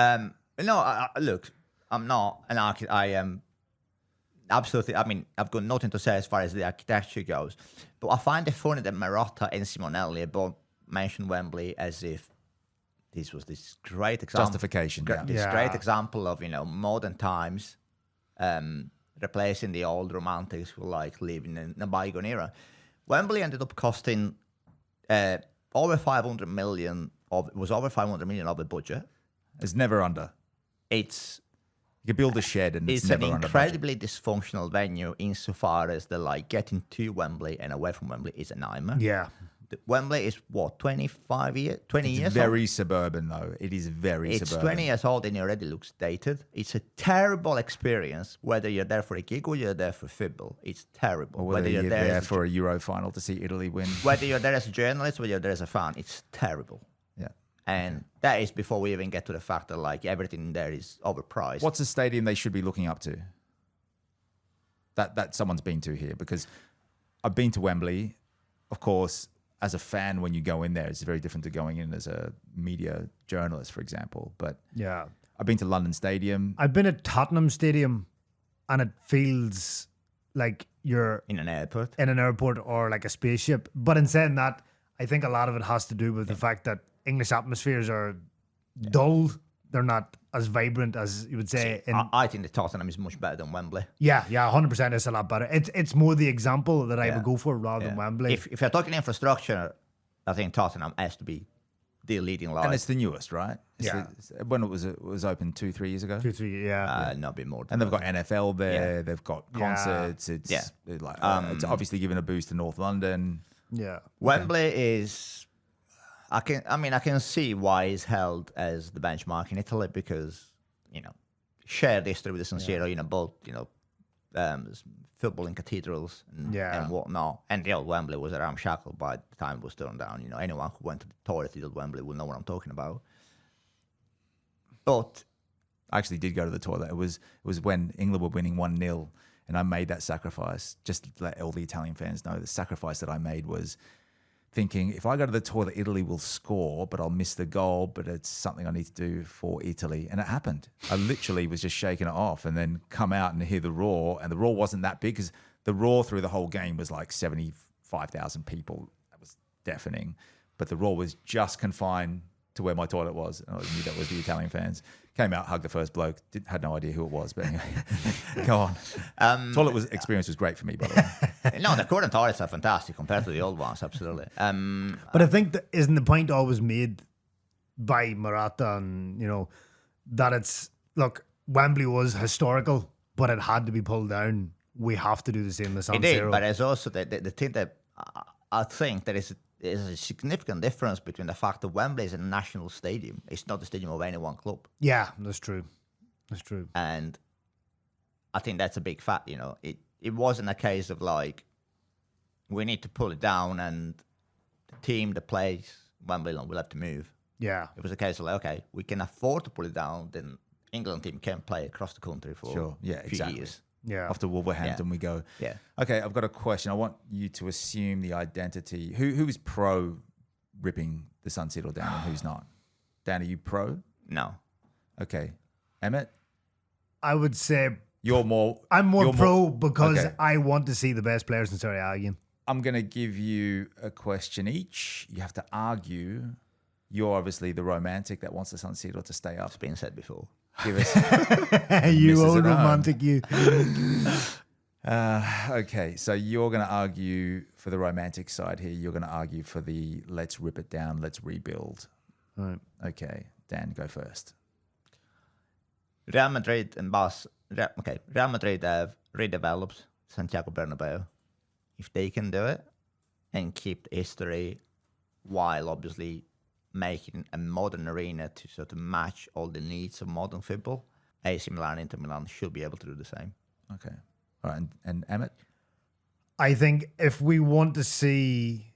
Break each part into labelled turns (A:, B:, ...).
A: Um, no, I, I, look, I'm not an architect. I am absolutely. I mean, I've got nothing to say as far as the architecture goes, but I find it funny that Marotta and Simonelli both mentioned Wembley as if this was this great example,
B: Justification,
A: gr-
B: yeah.
A: this
C: Yeah.
A: great example of you know modern times, um, replacing the old romantics who like living in a bygone era. Wembley ended up costing uh, over 500 million of was over 500 million of the budget.
B: It's never under.
A: It's
B: You could build a shed and it's,
A: it's an
B: never under. budget.
A: incredibly dysfunctional venue insofar as the like getting to Wembley and away from Wembley is a nightmare.
C: Yeah.
A: The- Wembley is what 25 years, 20 years.
B: It's
A: old?
B: very suburban though. It is very
A: It's
B: suburban.
A: 20 years old and it already looks dated. It's a terrible experience, whether you're there for a gig or you're there for football. It's terrible.
B: Or whether, you're, there,
A: as a-
B: for a Euro final to see Italy win.
A: whether you're there as a journalist, whether you're there as a fan, it's terrible.
B: Yeah.
A: And that is before we even get to the fact that like everything there is overpriced.
B: What's a stadium they should be looking up to? That that someone's been to here because I've been to Wembley. Of course, as a fan, when you go in there, it's very different to going in as a media journalist, for example. But
C: Yeah.
B: I've been to London Stadium.
C: I've been at Tottenham Stadium and it feels like you're
A: in an airport?
C: in an airport or like a spaceship. But in saying that, I think a lot of it has to do with the fact that English atmospheres are dull. They're not as vibrant as you would say in
A: I, I think the Tottenham is much better than Wembley.
C: Yeah, yeah, hundred percent. It's a lot better. It's it's more the example that I
A: Yeah.
C: would go for rather
A: Yeah.
C: than Wembley.
A: If, if you're talking infrastructure, I think Tottenham has to be the leading
B: and
A: line.
B: it's the newest, right? It's
C: Yeah.
B: the- it's- when it was it was open two, three years ago.
C: Two, three, yeah,
A: Uh, not be more. Than
B: And they've
A: that.
B: got NFL there. They've got
C: Yeah. Um,
B: concerts. It's
A: Yeah.
B: it like uh, it's obviously given a boost to North London.
C: yeah,
A: Wembley is. I can. I mean, I can see why it's held as the benchmark in Italy because you know shared history with the San Siro. You know, both you know um, s- footballing cathedrals and,
C: Yeah.
A: and whatnot. And the old Wembley was a ramshackle by the time it was torn down. You know, anyone who went to the tour at the old Wembley will know what I'm talking about. But
B: I actually did go to the toilet. It was it was when England were winning one 0 and I made that sacrifice. Just to let all the Italian fans know the sacrifice that I made was thinking if I go to the toilet, Italy will score, but I'll miss the goal. But it's something I need to do for Italy, and it happened. I literally was just shaking it off, and then come out and hear the roar, and the roar wasn't that big because the roar through the whole game was like seventy five thousand people. That was deafening, but the roar was just confined to where my toilet was, and I knew that was the Italian fans. Came out, hugged the first bloke, did, had no idea who it was, but anyway, go on. toilet was, experience was great for me, by the way.
A: Eh, no, the current toilets are fantastic compared to the old ones. Absolutely. Um,
C: But I think that isn't the point always made by Maratta and you know that it's look Wembley was historical, but it had to be pulled down. We have to do the same as San
A: It did,
C: Siro.
A: but it's also the, the, the thing that I, I think there is a, is a significant difference between the fact that Wembley is a national stadium. It's not the stadium of any one club,
C: yeah, that's true. That's true.
A: and I think that's a big fact. You know, it it wasn't a case of like we need to pull it down and the team, the place, Wembley, will have to move.
C: Yeah,
A: It was a case of like, okay, we can afford to pull it down, then England team can play across the country for
B: Sure. Yeah,
A: a few
B: exactly.
A: years.
C: yeah.
B: After Wolverhampton, we go.
A: Yeah.
B: Okay, I've got a question. I want you to assume the identity. Who who is pro ripping the Sun Citadel down and who's not? Dan, are you pro?
A: No,
B: Okay, Emmett,
C: I would say
B: you're more.
C: I'm more
B: you're
C: pro because
B: okay.
C: I want to see the best players in Serie A again.
B: I'm gonna give you a question each. You have to argue. You're obviously the romantic that wants the Sun Citadel to stay up.
A: it's been said before.
B: Give us.
C: you
B: Misses
C: old
B: it on.
C: romantic, you.
B: Uh, okay, so you're going to argue for the romantic side here. You're going to argue for the let's rip it down, let's rebuild.
C: Right.
B: Okay, Dan, go first.
A: Real Madrid and Bas. Re- okay, Real Madrid have redeveloped Santiago Bernabeu. If they can do it and keep the history, while obviously making a modern arena to sort of match all the needs of modern football, AC Milan, Inter Milan should be able to do the same.
B: Okay, all right, and, and Emmett.
C: I think if we want to see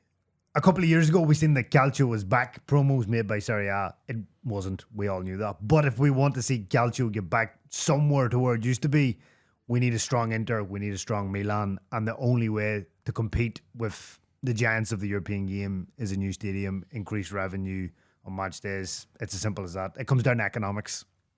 C: a couple of years ago, we seen that Calcio was back. Promos made by Serie A. It wasn't. We all knew that. But if we want to see Calcio get back somewhere to where it used to be, we need a strong Inter. We need a strong Milan. And the only way to compete with the giants of the European game is a new stadium, increased revenue on match days. It's as simple as that. It comes down to economics.